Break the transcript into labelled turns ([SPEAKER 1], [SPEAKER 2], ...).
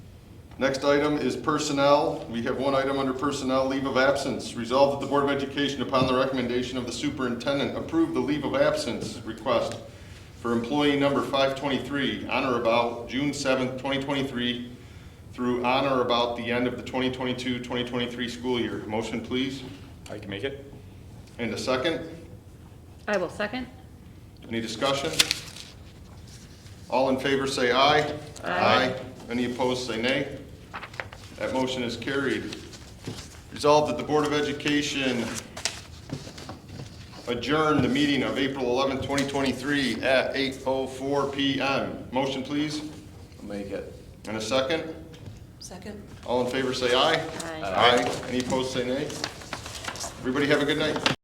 [SPEAKER 1] Next item is personnel. We have one item under personnel, leave of absence. Resolved that the Board of Education, upon the recommendation of the superintendent, approve the leave of absence request for employee number 523 on or about June 7th, 2023 through on or about the end of the 2022-2023 school year. Motion, please.
[SPEAKER 2] I can make it.
[SPEAKER 1] And a second.
[SPEAKER 3] I will second.
[SPEAKER 1] Any discussion? All in favor say aye.
[SPEAKER 3] Aye.
[SPEAKER 1] Any opposed say nay. That motion is carried. Resolved that the Board of Education adjourn the meeting of April 11, 2023 at 8:04 PM. Motion, please,
[SPEAKER 4] I'll make it.
[SPEAKER 1] and a second.
[SPEAKER 5] Second.
[SPEAKER 1] All in favor say aye.
[SPEAKER 3] Aye.
[SPEAKER 1] Aye. Any opposed say nay. Everybody have a good night.